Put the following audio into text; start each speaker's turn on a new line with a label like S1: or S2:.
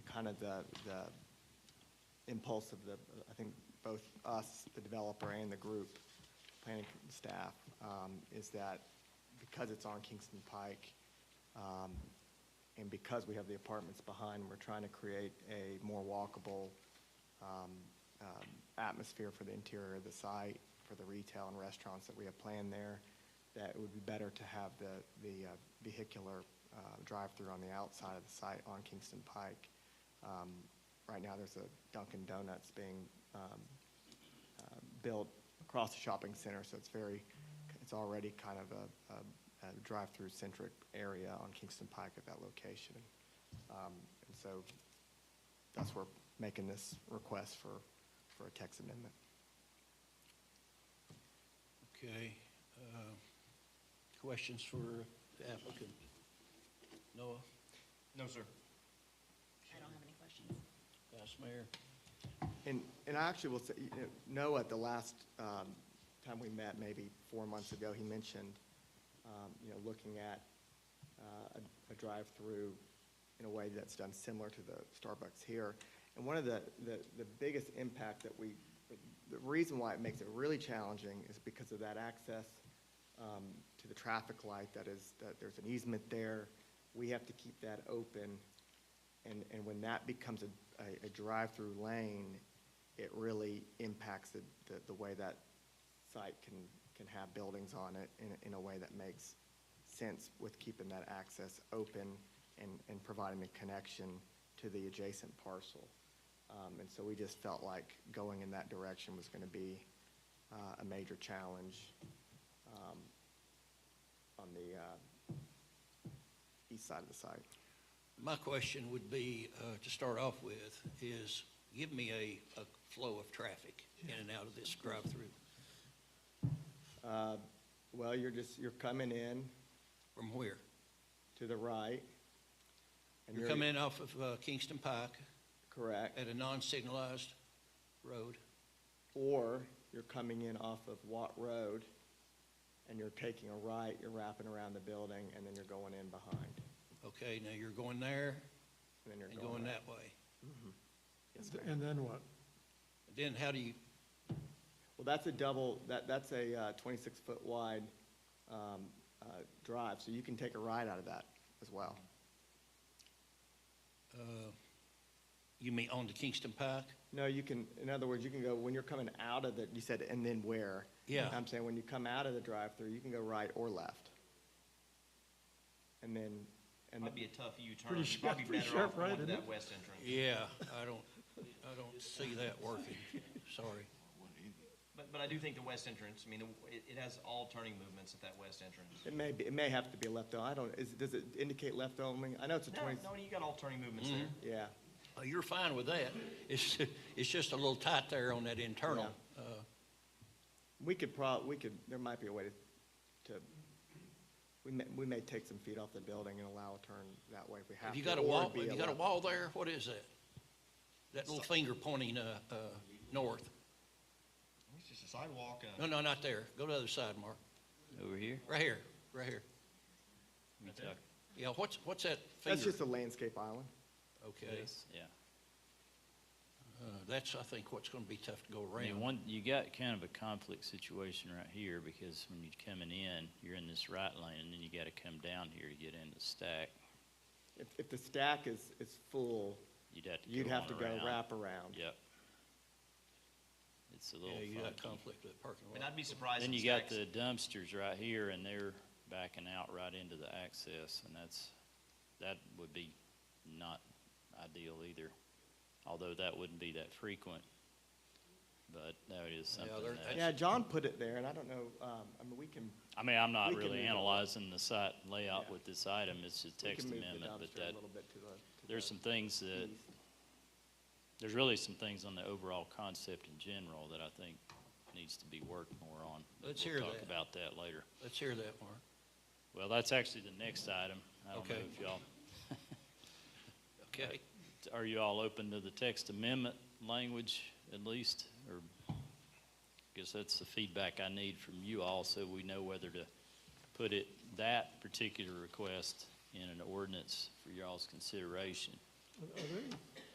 S1: kind of the, the impulse of the, I think, both us, the developer, and the group, planning staff, um, is that because it's on Kingston Pike, um, and because we have the apartments behind, we're trying to create a more walkable um, um, atmosphere for the interior of the site, for the retail and restaurants that we have planned there, that it would be better to have the, the uh, vehicular uh, drive-through on the outside of the site on Kingston Pike. Um, Right now, there's a Dunkin' Donuts being um, uh, built across the shopping center, so it's very, it's already kind of a, a, a drive-through centric area on Kingston Pike at that location. Um, and so that's where making this request for, for a text amendment.
S2: Okay. uh, Questions for the applicant? Noah,
S3: No, sir.
S4: I don't have any questions.
S2: Vice Mayor?
S1: And, and I actually will say, you know, Noah, at the last um, time we met, maybe four months ago, he mentioned, um, you know, looking at uh, a- a drive-through in a way that's done similar to the Starbucks here. And one of the, the the biggest impact that we, the reason why it makes it really challenging is because of that access um, to the traffic light that is, that there's an easement there. We have to keep that open. And, and when that becomes a, a, a drive-through lane, it really impacts the, the, the way that site can, can have buildings on it in, a- in a way that makes sense with keeping that access open and, and providing the connection to the adjacent parcel. Um, and so we just felt like going in that direction was gonna be, uh, a major challenge, um, on the, uh, east side of the site.
S2: My question would be, uh, to start off with, is give me a, a flow of traffic in and out of this drive-through
S1: Uh, Well, you're just, you're coming in
S2: from where?
S1: to the right. and
S2: You're coming in off of uh, Kingston Pike
S1: Correct.
S2: at a non-signalized road.
S1: Or you're coming in off of Watt Road and you're taking a right, you're wrapping around the building and then you're going in behind.
S2: Okay, now you're going there
S1: And then you're
S2: and going
S1: going out.
S2: that way.
S1: Yes, ma'am.
S5: And then what?
S2: Then how do you,
S1: Well, that's a double, that, that's a uh, twenty-six foot wide um, uh, drive, so you can take a ride out of that as well.
S2: uh, you mean on to Kingston Pike?
S1: No, you can, in other words, you can go, when you're coming out of the, you said, and then where?
S2: Yeah.
S1: I'm saying, when you come out of the drive-through, you can go right or left. And then, and,
S3: Might be a tough U-turn.
S5: Pretty
S3: You'd probably
S5: sharp- pretty
S3: better off
S5: sharp right,
S3: going to
S5: isn't
S3: that
S5: it?
S3: west entrance.
S2: Yeah, I don't, I don't see that working, sorry.
S3: But, but I do think the west entrance, I mean, the- it, it has all turning movements at that west entrance.
S1: it may be, it may have to be left only, I don't, is, does it indicate left only? I know it's a
S3: No,
S1: twenty,
S3: no, you got all turning movements
S6: Mm.
S3: there.
S1: yeah,
S2: Uh, You're fine with that, it's, it's just a little tight there on that internal. uh,
S1: we could prob, we could, there might be a way to, to, we may, we may take some feet off the building and allow a turn that way if we have
S2: Have
S1: to.
S2: you got a
S1: or
S2: wall,
S1: it'd be
S2: have you got a
S1: left-
S2: wall there, what is that? That little finger pointing, uh, uh, north,
S3: It's just a sidewalk, uh,
S2: no, no, not there, go to the other side, Mark,
S6: Over here?
S2: right here, right here.
S6: Let me
S3: Right there?
S6: talk.
S2: Yeah, what's, what's that
S1: That's
S2: finger?
S1: just a landscape island,
S2: Okay,
S6: Yeah.
S2: uh, that's, I think, what's gonna be tough to go
S6: I mean,
S2: around.
S6: one, you got kind of a conflict situation right here because when you're coming in, you're in this right lane and then you gotta come down here to get into stack.
S1: if, if the stack is, is full,
S6: You'd have to go
S1: you'd have to
S6: on
S1: go
S6: around.
S1: wrap around.
S6: Yep. It's a
S2: Yeah,
S6: little
S2: you got
S6: funky.
S2: conflict with parking
S3: I mean,
S2: lot.
S3: I'd be surprised.
S6: Then
S3: if
S6: you got
S3: stacks-
S6: the dumpsters right here and they're backing out right into the access and that's, that would be not ideal either. Although that wouldn't be that frequent, but that is something
S2: there-
S6: that.
S2: that's-
S1: Yeah, John put it there, and I don't know, um, I mean, we can,
S6: I mean, I'm
S1: We
S6: not
S1: can
S6: really
S1: move it.
S6: analyzing the site layout
S1: Yeah.
S6: with this item, it's a
S1: we
S6: text
S1: can move the
S6: amendment, but
S1: dumpster
S6: that,
S1: a little bit Mm-hmm. to the. to
S6: there's
S1: the
S6: some things that,
S1: east.
S6: there's really some things on the overall concept in general that I think needs to be worked more on. but
S2: Let's
S6: we'll
S2: hear
S6: Talk
S2: that.
S6: about that later.
S2: Let's hear that, Mark.
S6: Well, that's actually the next item. I don't know
S2: Okay.
S6: if y'all,
S2: Okay,
S6: are you all open to the text amendment language at least? Or, I guess that's the feedback I need from you all, so we know whether to put it, that particular request in an ordinance for y'all's consideration.
S5: Are- Are they